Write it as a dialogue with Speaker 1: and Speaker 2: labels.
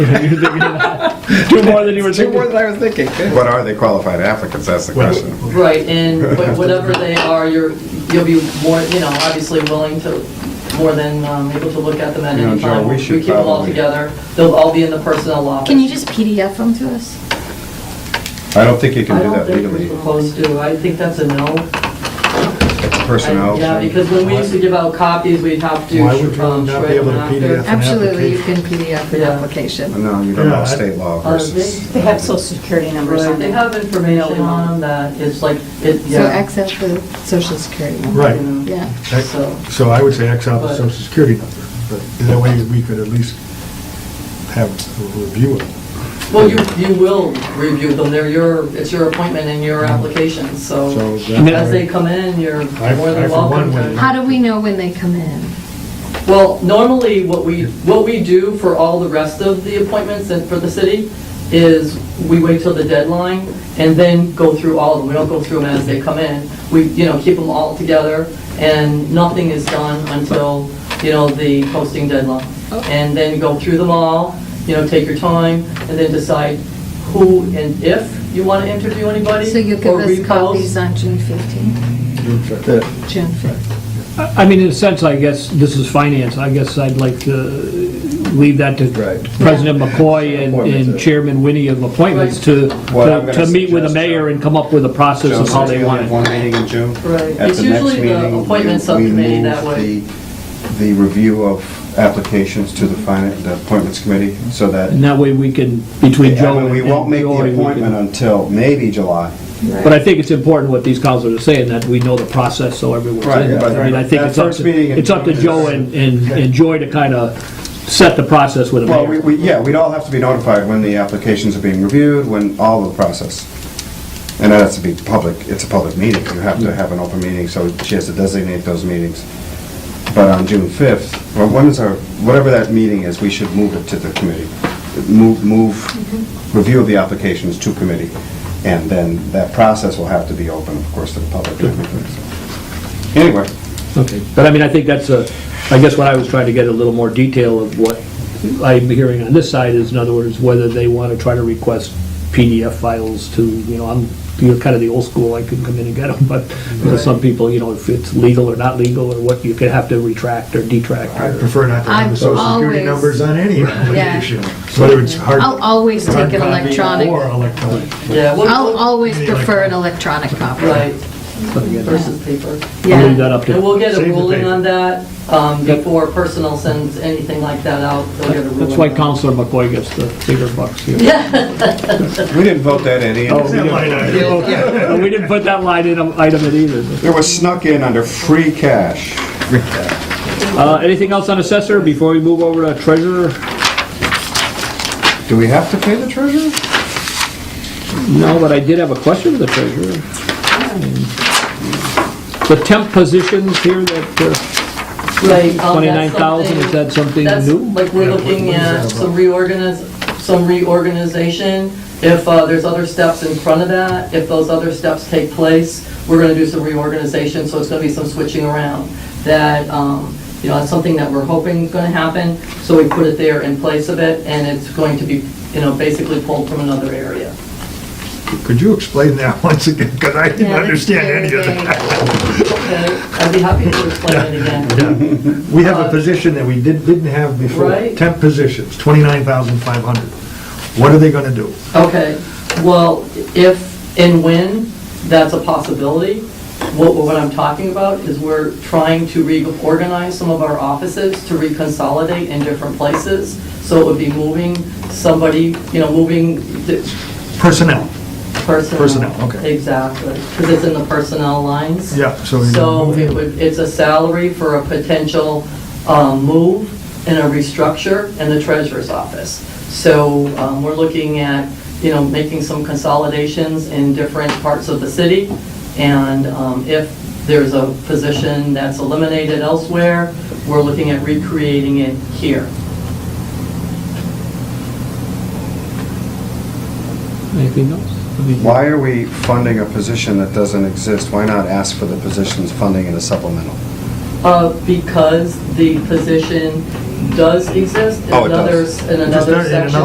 Speaker 1: Two more than you were
Speaker 2: Two more
Speaker 1: thinking.
Speaker 2: than I was thinking. Good.
Speaker 3: What are they qualified applicants? That's the
Speaker 1: Well-
Speaker 3: question.
Speaker 4: Right, and wh- whatever they are, you're, you'll be more, you know, obviously willing to, more than um, able to look at them at
Speaker 3: You know,
Speaker 4: any
Speaker 3: Joe,
Speaker 4: time.
Speaker 3: we should
Speaker 4: keep them all
Speaker 3: probably-
Speaker 4: together. They'll all be in the personnel office.
Speaker 5: Can you just PDF them to us?
Speaker 3: I don't think you can
Speaker 4: I
Speaker 3: do
Speaker 4: don't
Speaker 3: that
Speaker 4: think
Speaker 3: legally.
Speaker 4: we're supposed to. I think that's a no.
Speaker 3: Personnel.
Speaker 4: I- Yeah, because when we used to give out copies, we'd have to.
Speaker 6: Why would you
Speaker 4: um,
Speaker 6: not be
Speaker 4: shred
Speaker 6: able to
Speaker 4: them after.
Speaker 6: PDF? An
Speaker 5: Absolutely, you can PDF an
Speaker 4: Yeah.
Speaker 5: application.
Speaker 3: No, you don't
Speaker 6: Yeah,
Speaker 3: know
Speaker 6: I-
Speaker 3: state law
Speaker 4: Uh,
Speaker 3: versus.
Speaker 4: they-
Speaker 7: They have social security numbers
Speaker 4: Right,
Speaker 7: on
Speaker 4: they
Speaker 7: them.
Speaker 4: have information on them that it's like, it,
Speaker 5: So
Speaker 4: yeah.
Speaker 5: X out the social security number.
Speaker 6: Right.
Speaker 5: Yeah.
Speaker 4: So-
Speaker 6: So I would say X out the
Speaker 4: But-
Speaker 6: social security number, but that way we could at least have a review of it.
Speaker 4: Well, you, you will review them, they're your, it's your appointment and your application, so
Speaker 6: So
Speaker 4: as they
Speaker 6: that way,
Speaker 4: come in, you're
Speaker 6: I-
Speaker 4: more
Speaker 6: I
Speaker 4: than
Speaker 6: for
Speaker 4: welcome
Speaker 6: one would-
Speaker 4: to.
Speaker 5: How do we know when they come in?
Speaker 4: Well, normally, what we, what we do for all the rest of the appointments and for the city is we wait till the deadline and then go through all of them, we don't go through them as they come in. We, you know, keep them all together and nothing is done until, you know, the posting deadline. And then go through them all, you know, take your time and then decide who and if you want to interview anybody.
Speaker 5: So you'll give
Speaker 4: or
Speaker 5: us
Speaker 4: repost.
Speaker 5: copies on June 15th? June 5th.
Speaker 1: I mean, in a sense, I guess, this is finance, I guess I'd like to leave that to
Speaker 2: Right.
Speaker 1: President McCoy and-
Speaker 2: Appointments, uh,
Speaker 1: and Chairman Winnie of appointments to,
Speaker 3: What I'm
Speaker 1: to
Speaker 3: gonna
Speaker 1: to meet with the
Speaker 3: suggest,
Speaker 1: mayor
Speaker 3: Joe-
Speaker 1: and come up with a process
Speaker 3: Joe,
Speaker 1: of how
Speaker 3: since
Speaker 1: they
Speaker 3: we
Speaker 1: want
Speaker 3: only have one
Speaker 1: it.
Speaker 3: meeting in June.
Speaker 4: Right.
Speaker 3: At
Speaker 4: It's
Speaker 3: the next
Speaker 4: usually the
Speaker 3: meeting,
Speaker 4: appointment
Speaker 3: we-
Speaker 4: subcommittee
Speaker 3: we
Speaker 4: that
Speaker 3: move
Speaker 4: way.
Speaker 3: the- The review of applications to the finance, the appointments committee, so that.
Speaker 1: And that way we can, between
Speaker 3: I
Speaker 1: Joe
Speaker 3: mean,
Speaker 1: and.
Speaker 3: We won't
Speaker 1: and
Speaker 3: make
Speaker 1: Lori,
Speaker 3: the
Speaker 1: we can-
Speaker 3: appointment until maybe July.
Speaker 1: But I think it's important what these counselors are saying, that we know the process, so everyone's
Speaker 3: Right,
Speaker 1: in. it.
Speaker 3: but
Speaker 1: I mean, I think
Speaker 3: that
Speaker 1: it's up
Speaker 3: first meeting
Speaker 1: to,
Speaker 3: in
Speaker 1: it's up to
Speaker 3: June
Speaker 1: Joe
Speaker 3: is-
Speaker 1: and, and and Joy to kind of set the process with the
Speaker 3: Well, we,
Speaker 1: mayor.
Speaker 3: we, yeah, we'd all have to be notified when the applications are being reviewed, when all of the process. And that has to be public, it's a public meeting, you have to have an open meeting, so she has to designate those meetings. But on June 5th, well, when is our, whatever that meeting is, we should move it to the committee. Move, move, review of the applications to committee, and then that process will have to be open, of course, to the public. and everything, so. Anyway,
Speaker 1: Okay. But I mean, I think that's a, I guess what I was trying to get a little more detail of what I'm hearing on this side is, in other words, whether they want to try to request PDF files to, you know, I'm, you're kind of the old school, I can come in and get them, but you know, some people, you know, if it's legal or not legal, or what, you could have to retract or detract.
Speaker 6: I
Speaker 1: or-
Speaker 6: prefer not to have the
Speaker 5: I've
Speaker 6: social security
Speaker 5: always-
Speaker 6: numbers on any application, whether it's hard.
Speaker 5: I'll always
Speaker 6: hard
Speaker 5: take an
Speaker 6: copy
Speaker 5: electronic.
Speaker 6: Or electronic.
Speaker 4: Yeah, what-
Speaker 5: I'll always prefer an electronic copy.
Speaker 4: Right, versus paper.
Speaker 1: I'll leave
Speaker 5: Yeah.
Speaker 1: that up to.
Speaker 4: And we'll get
Speaker 6: Save
Speaker 4: a
Speaker 6: the
Speaker 4: ruling
Speaker 6: paper.
Speaker 4: on that um, before personnel sends anything like that out. they'll get a
Speaker 1: That's
Speaker 4: ruling
Speaker 1: why
Speaker 4: on it.
Speaker 1: Counselor McCoy gets the bigger bucks here.
Speaker 3: we didn't vote that in either.
Speaker 1: Oh, we didn't- Well, We didn't put that line in, um, item in either.
Speaker 3: It was snuck in under free cash.
Speaker 1: Uh, Anything else on assessor before we move over to treasurer?
Speaker 3: Do we have to pay the treasurer?
Speaker 1: No, but I did have a question for the treasurer. The temp positions here that, uh,
Speaker 4: Right, um, that's
Speaker 1: 29,000, is
Speaker 4: something-
Speaker 1: that something
Speaker 4: that's-
Speaker 1: new?
Speaker 4: Like, we're looking at some reorganiz, some reorganization. If uh, there's other steps in front of that, if those other steps take place, we're gonna do some reorganization, so it's gonna be some switching around. That, um, you know, that's something that we're hoping is gonna happen, so we put it there in place of it, and it's going to be, you know, basically pulled from another area.
Speaker 6: Could you explain that once again? Because I didn't
Speaker 5: Yeah, that's
Speaker 6: understand
Speaker 5: very
Speaker 6: any of
Speaker 5: vague.
Speaker 6: that.
Speaker 4: Okay, I'd be happy to explain it again.
Speaker 6: We
Speaker 2: Uh,
Speaker 6: have a position that we did- didn't have before,
Speaker 4: Right.
Speaker 6: temp positions, 29,500. What are they going to do?
Speaker 4: Okay, well, if and when, that's a possibility. What, what I'm talking about is we're trying to reorganize some of our offices to reconsolidate in different places. So it would be moving somebody, you know, moving the
Speaker 6: Personnel.
Speaker 4: personnel.
Speaker 6: Personnel, okay.
Speaker 4: Exactly, because it's in the personnel lines.
Speaker 6: Yeah, so you're
Speaker 4: So
Speaker 6: moving-
Speaker 4: it would, it's a salary for a potential um, move and a restructure in the treasurer's office. So um, we're looking at, you know, making some consolidations in different parts of the city. And um, if there's a position that's eliminated elsewhere, we're looking at recreating it here.
Speaker 1: anything else? I mean,
Speaker 3: Why are we funding a position that doesn't exist? Why not ask for the position's funding in a supplemental?
Speaker 4: Uh, Because the position does exist in
Speaker 3: Oh, it
Speaker 4: another,
Speaker 3: does.
Speaker 4: in
Speaker 6: Just in
Speaker 4: another
Speaker 6: another
Speaker 4: section